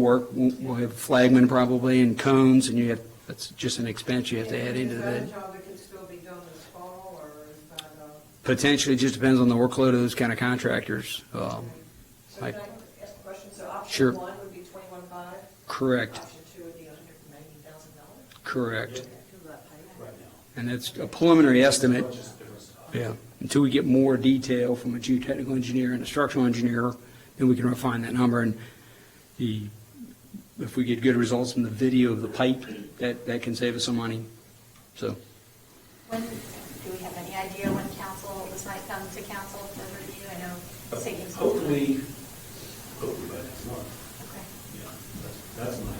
work, we'll we'll have flagmen probably and cones, and you have, that's just an expense you have to add into that. Is that a job that can still be done this fall, or is that uh, a, Potentially, just depends on the workload of those kind of contractors. Um, so I- can I ask a question? So Sure. option one would be twenty-one five? Correct, Option two would be hundred and ninety thousand dollars? correct. Who that paid? And that's a preliminary estimate. Yeah, until we get more detail from a geotechnical engineer and a structural engineer, then we can refine that number. And the, if we get good results from the video of the pipe, that, that can save us some money. So When, do we have any idea when council, this might come to council for review? I know it's taking some time. Oh, Hopefully, hopefully by next month, Okay, you know, that's, that's my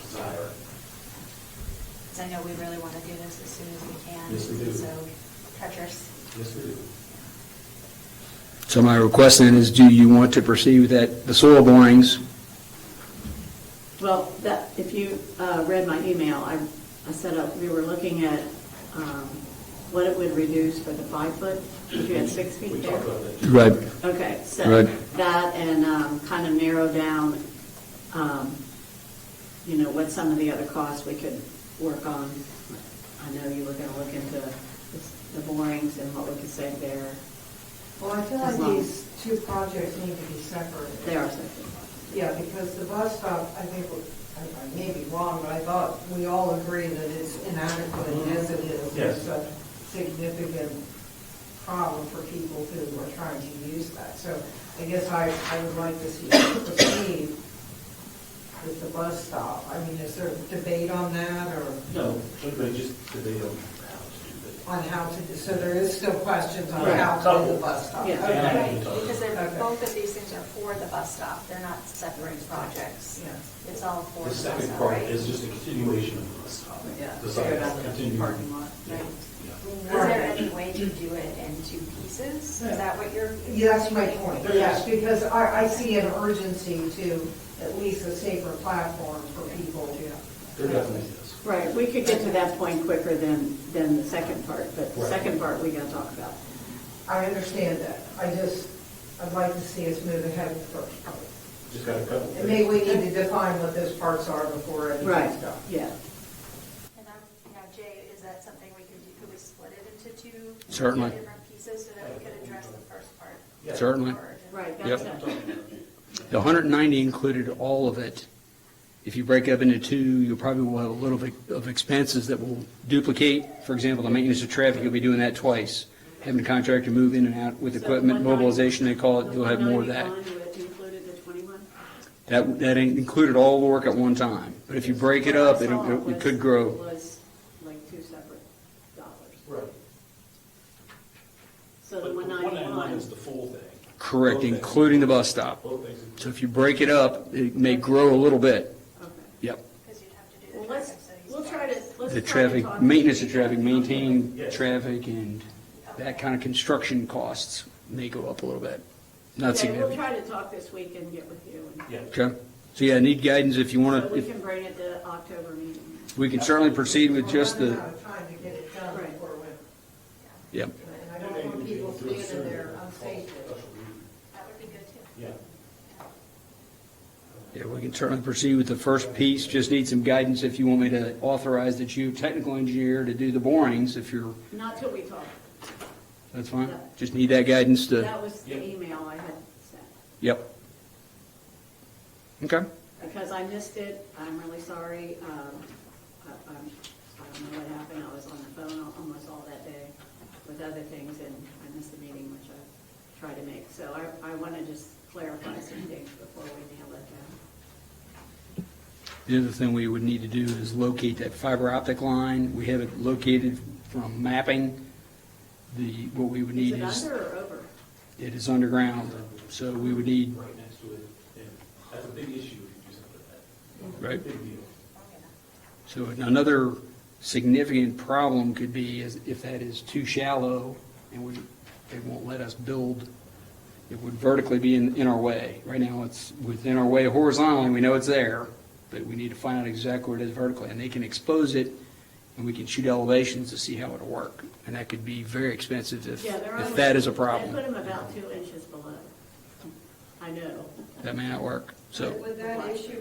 desire. because I know we really want to do this as soon as we can. Yes, we do. So treacherous. Yes, we do. So my request then is, do you want to proceed with that, the soil borings? Well, that, if you uh, read my email, I, I set up, we were looking at um, what it would reduce for the five foot, if you had six We feet there. talked about that. too. Right. Okay, so Right. that and um, kind of narrow down, um, you know, what some of the other costs we could work on. I know you were going to look into the borings and what we could save there. Well, I feel As long- like these two projects need to be separated. They are something. Yeah, because the bus stop, I think, I I may be wrong, but I thought we all agree that it's inadequate as it is. Yes. It's a significant problem for people who are trying to use that. So I guess I, I would like to see us proceed with the bus stop. I mean, is there debate on that or No, everybody just, they don't know how on to how to, so there is still questions on Right. how to do the bus stop? Yeah. Yeah. Okay. Right, because they're, Okay. both of these things are for the bus stop. They're not separate projects. Yeah. It's all for the do that. The bus stop, right? second part is just a continuation of the bus stop. Yeah, The figure side, out the continue. parking lot, Yeah, right. yeah. Is there any way to do it in two pieces? Is that what you're? Yeah, That's my point, yes, because I, I see an urgency to at least a safer platform for people. There definitely is. Right, we could get to that point quicker than, than the second part, but the Right. second part we got to talk about. I understand that, I just, I'd like to see us move ahead with the first part. Just got a couple And maybe things. we need to define what those parts are before Right, anything's done. yeah. And I'm, now Jay, is that something we could do, could we split it into two? Certainly. Different pieces so that we could address the first part? Yeah. Certainly. Or- Right, Yep. that's it. The 190 included all of it. If you break up into two, you probably will have a little bit of expenses that will duplicate. For example, the maintenance of traffic, you'll be doing that twice. Having a contractor move in and out with equipment mobilization, they call it, you'll have more of that. The 190 bond Included the 21? That, that included all the work at one time. But if you break it up, it, it could grow. Was like two separate dollars. Right. So But the the 191 191, is the full thing. Correct, including the bus stop. Both things. So if you break it up, it may grow a little bit. okay. Yep. Because you'd have to do Well, the let's, traffic studies. we'll try to, let's try to. The traffic, talk- maintenance of traffic, maintain Yes. traffic, and that kind of construction costs may go up a little bit. Not Okay, We'll significant. try to talk this week and get with you. and- Yeah. Okay? So yeah, I need guidance if you want So we to, can bring it to October meeting. we can certainly proceed with We're just running the, out of time to get it done Right. before winter, yeah. and I don't want people standing there unsafely. That would be good too. Yeah. Yeah, we can certainly proceed with the first piece, just need some guidance if you want me to authorize the geotechnical engineer to do the borings, if you're, Not till we talk. that's fine. Just need that guidance to, That was the Yeah. email I had sent. yep. Okay, Because I missed it, I'm really sorry. Um, I I'm- I don't know what happened, I was on the phone al- almost all that day with other things, and I missed the meeting, which I tried to make. So I I want to just clarify some things before we nail it down. the other thing we would need to do is locate that fiber optic line, we have it located from mapping. The, what we would need Is is, it under or over? it is underground, so we would need, Right next to it, and that's a big issue if you do something like that. Right. Big deal. so another significant problem could be is if that is too shallow, and we, they won't let us build it would vertically be in, in our way. Right now, it's within our way horizontally, we know it's there, but we need to find out exactly where it is vertically, and they can expose it, and we can shoot elevations to see how it'll work, and that could be very expensive if, Yeah, they're if on- that is a They put problem. them about two inches below. I know. That may not work, so. Would that issue